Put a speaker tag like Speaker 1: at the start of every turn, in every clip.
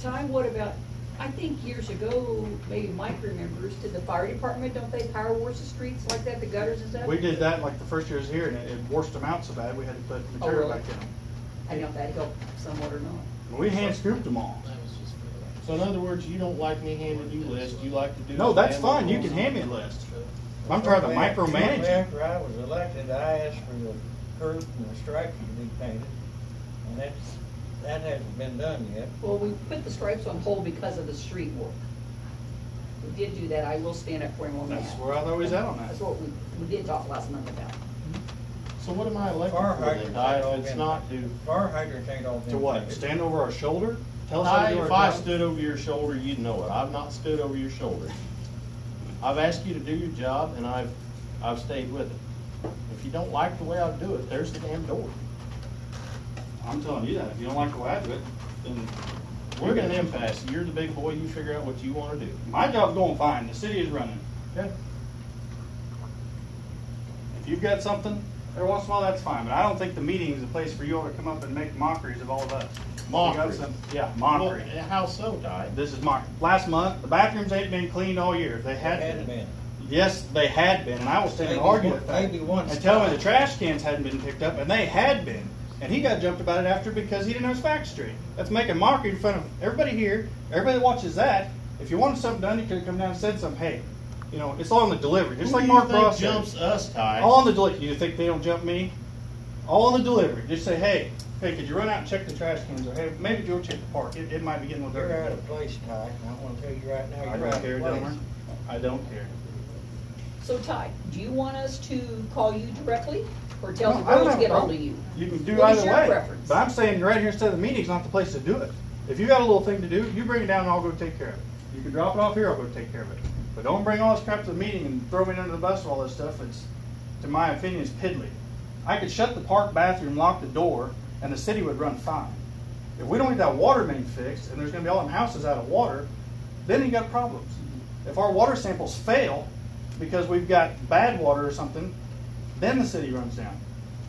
Speaker 1: time, what about, I think years ago, maybe Mike remembers, did the fire department, don't they power wash the streets like that, the gutters and stuff?
Speaker 2: We did that like the first year I was here, and it, it washed them out so bad, we had to put material
Speaker 1: really?
Speaker 2: back in them.
Speaker 1: I don't know if that helped somewhat or not.
Speaker 2: We hand scooped them all.
Speaker 3: That was just for the.
Speaker 4: So in other words, you don't like me handing you lists, you like to do.
Speaker 2: No, that's
Speaker 4: manual
Speaker 2: fine, you
Speaker 4: rules.
Speaker 2: can hand me a list. I'm trying to
Speaker 5: Shortly
Speaker 2: micromanage it.
Speaker 5: After I was elected, I asked for the curb and the stripes to be painted, and that's, that hasn't been done yet.
Speaker 1: Well, we put the stripes on hold because of the street work. We did do that, I will stand up for him on that.
Speaker 2: That's where I was always at on that.
Speaker 1: That's what we, we did talk last month about.
Speaker 4: So what am I elected
Speaker 5: Fire
Speaker 4: for then?
Speaker 5: hydrants
Speaker 4: I,
Speaker 5: ain't all
Speaker 4: it's
Speaker 5: been-
Speaker 4: not to.
Speaker 5: Fire hydrants ain't all been.
Speaker 2: To what,
Speaker 5: painted.
Speaker 2: stand over our shoulder? Tell us how
Speaker 4: I,
Speaker 2: to do our
Speaker 4: if I
Speaker 2: job?
Speaker 4: stood over your shoulder, you'd know it. I've not stood over your shoulder. I've asked you to do your job and I've, I've stayed with it. If you don't like the way I do it, there's the damn door.
Speaker 2: I'm telling you that, if you don't like the way I do it, then
Speaker 4: We're in an impasse. You're the big boy. You figure out what you wanna do.
Speaker 2: my job's going fine, the city is running.
Speaker 4: Okay.
Speaker 2: If you've got something, every once in a while, that's fine, but I don't think the meeting's the place for you all to come up and make mockeries of all of us. You got
Speaker 4: Mockery.
Speaker 2: some- Yeah, mockery.
Speaker 4: Well, How so, Di?
Speaker 2: This is mockery. Last month, the bathrooms ain't been cleaned all year, if they had
Speaker 5: Had
Speaker 2: been.
Speaker 5: been.
Speaker 2: Yes, they had been, and I will stand and
Speaker 5: Maybe
Speaker 2: argue
Speaker 5: one-
Speaker 2: with that.
Speaker 5: maybe one
Speaker 2: And tell me
Speaker 5: spot.
Speaker 2: the trash cans hadn't been picked up, and they had been. And he got jumped about it after because he didn't know his facts straight. That's making mockery in front of everybody here, everybody that watches that. If you wanted something done, you could have come down and said something. Hey, you know, it's all on the delivery, just
Speaker 4: Who
Speaker 2: like
Speaker 4: do you
Speaker 2: Mark
Speaker 4: think
Speaker 2: Ross said.
Speaker 4: Jumps us, Ty.
Speaker 2: All on the delivery. You think they don't jump me? All on the delivery. Just say, hey, hey, could you run out and check the trash cans? Or hey, maybe Joe check the park. It, it might be getting a little
Speaker 5: You're out
Speaker 2: dirty.
Speaker 5: of place, Ty, and I wanna tell you right now,
Speaker 2: I
Speaker 5: you're out
Speaker 2: don't
Speaker 5: of
Speaker 2: care,
Speaker 5: place.
Speaker 2: Delmer. I don't care.
Speaker 1: So Ty, do you want us to call you directly or tell
Speaker 2: No,
Speaker 1: the
Speaker 2: I don't
Speaker 1: girls
Speaker 2: have
Speaker 1: to
Speaker 2: a
Speaker 1: get
Speaker 2: problem.
Speaker 1: hold of you?
Speaker 2: You can do
Speaker 1: What is
Speaker 2: either
Speaker 1: your
Speaker 2: way.
Speaker 1: preference?
Speaker 2: But I'm saying right here instead of the meeting's not the place to do it. If you got a little thing to do, you bring it down and I'll go take care of it. You can drop it off here, I'll go take care of it. But don't bring all this crap to the meeting and throw me under the bus and all this stuff. It's, to my opinion, it's piddly. I could shut the park bathroom, lock the door, and the city would run fine. If we don't get that water main fixed and there's gonna be all them houses out of water, then you got problems. If our water samples fail because we've got bad water or something, then the city runs down.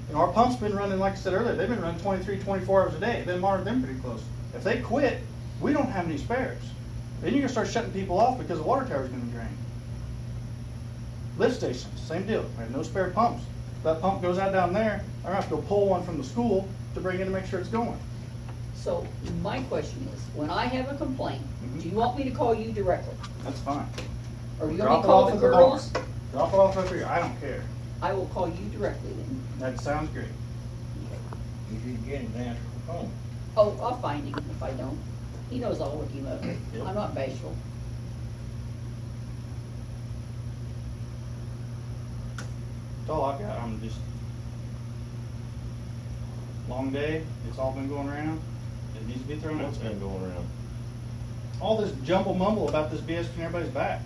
Speaker 2: You know, our pumps been running, like I said earlier, they've been running 23, 24 hours a day. They monitor them pretty close. If they quit, we don't have any spares. Then you're gonna start shutting people off because the water tower's gonna drain. Lift stations, same deal. We have no spare pumps. That pump goes out down there, I'm gonna have to go pull one from the school to bring in to make sure it's going.
Speaker 1: So my question is, when I have a complaint,
Speaker 2: Mhm.
Speaker 1: do you want me to call you directly?
Speaker 2: That's fine.
Speaker 1: Or you want me
Speaker 2: Drop
Speaker 1: to
Speaker 2: it
Speaker 1: call
Speaker 2: off
Speaker 1: the
Speaker 2: at the barn.
Speaker 1: girls?
Speaker 2: Drop it off up here, I don't care.
Speaker 1: I will call you directly then.
Speaker 2: That sounds great.
Speaker 5: You should get an answer phone.
Speaker 1: Oh, I'll find him if I don't. He knows I'll look him up. I'm not bashful.
Speaker 2: That's all I got, I'm just. Long day, it's all been going around, it needs to be thrown out.
Speaker 4: What's been going around?
Speaker 2: all this jumble mumble about this BS from everybody's back.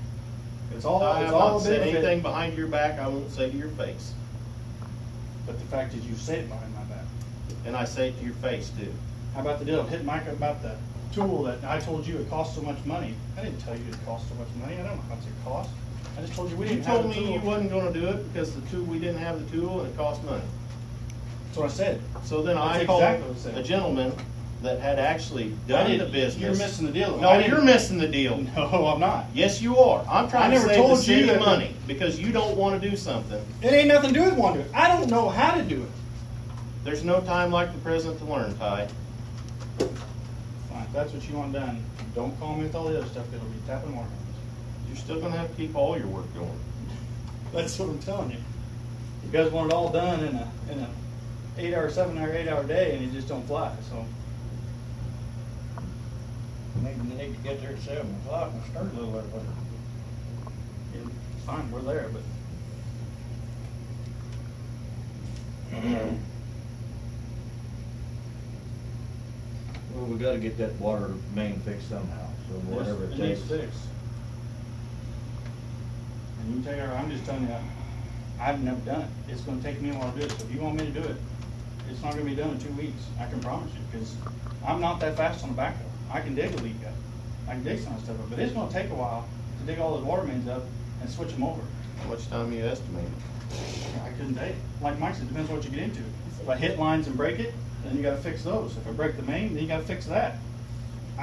Speaker 2: It's all
Speaker 4: I
Speaker 2: it's
Speaker 4: have
Speaker 2: all
Speaker 4: not
Speaker 2: a
Speaker 4: said
Speaker 2: big
Speaker 4: anything
Speaker 2: thing,
Speaker 4: behind your back I won't say to your face.
Speaker 2: but the fact is you say it behind my back.
Speaker 4: And I say it to your face too.
Speaker 2: How about the deal of hitting Mike about the tool that I told you it cost so much money? I didn't tell you it cost so much money. I don't know how much it cost. I just told you we
Speaker 4: You
Speaker 2: didn't have
Speaker 4: told
Speaker 2: the
Speaker 4: me
Speaker 2: tool.
Speaker 4: you wasn't gonna do it because the tool, we didn't have the tool and it cost money.
Speaker 2: That's what I said.
Speaker 4: So then I
Speaker 2: That's
Speaker 4: called
Speaker 2: exactly what I said.
Speaker 4: a gentleman that had actually
Speaker 2: I
Speaker 4: done
Speaker 2: didn't-
Speaker 4: the business.
Speaker 2: You're missing the deal.
Speaker 4: No,
Speaker 2: I didn't-
Speaker 4: you're missing the deal.
Speaker 2: No, I'm not.
Speaker 4: Yes, you are. I'm trying to
Speaker 2: never
Speaker 4: save the
Speaker 2: told you
Speaker 4: city
Speaker 2: that the-
Speaker 4: money because you don't wanna do something.
Speaker 2: It ain't nothing to do with one to it. I don't know how to do it.
Speaker 4: There's no time like the present to learn, Ty.
Speaker 2: Fine, if that's what you want done, don't call me with all the other stuff. It'll be tapping water.
Speaker 4: You're still gonna have to keep all your work going.
Speaker 2: That's what I'm telling you. You guys want it all done in a in a eight hour, seven hour, eight hour day, and it just don't fly. So
Speaker 5: Maybe you need to get there at seven o'clock and start a little early.
Speaker 2: it's fine, we're there, but
Speaker 6: Well, we gotta get that water main fixed somehow, so whatever it
Speaker 2: it needs
Speaker 6: takes.
Speaker 2: fixed. And you tell her, I'm just telling you, I've never done it. It's gonna take me a while to do it. So if you want me to do it, it's not gonna be done in two weeks. I can promise you, because I'm not that fast on the backhoe. I can dig a leak up. I can dig some stuff up, but it's gonna take a while to dig all those water mains up and switch them over.
Speaker 4: How much time you estimate?
Speaker 2: I couldn't date. Like Mike said, depends what you get into. If I hit lines and break it, then you gotta fix those. If I break the main, then you gotta fix that.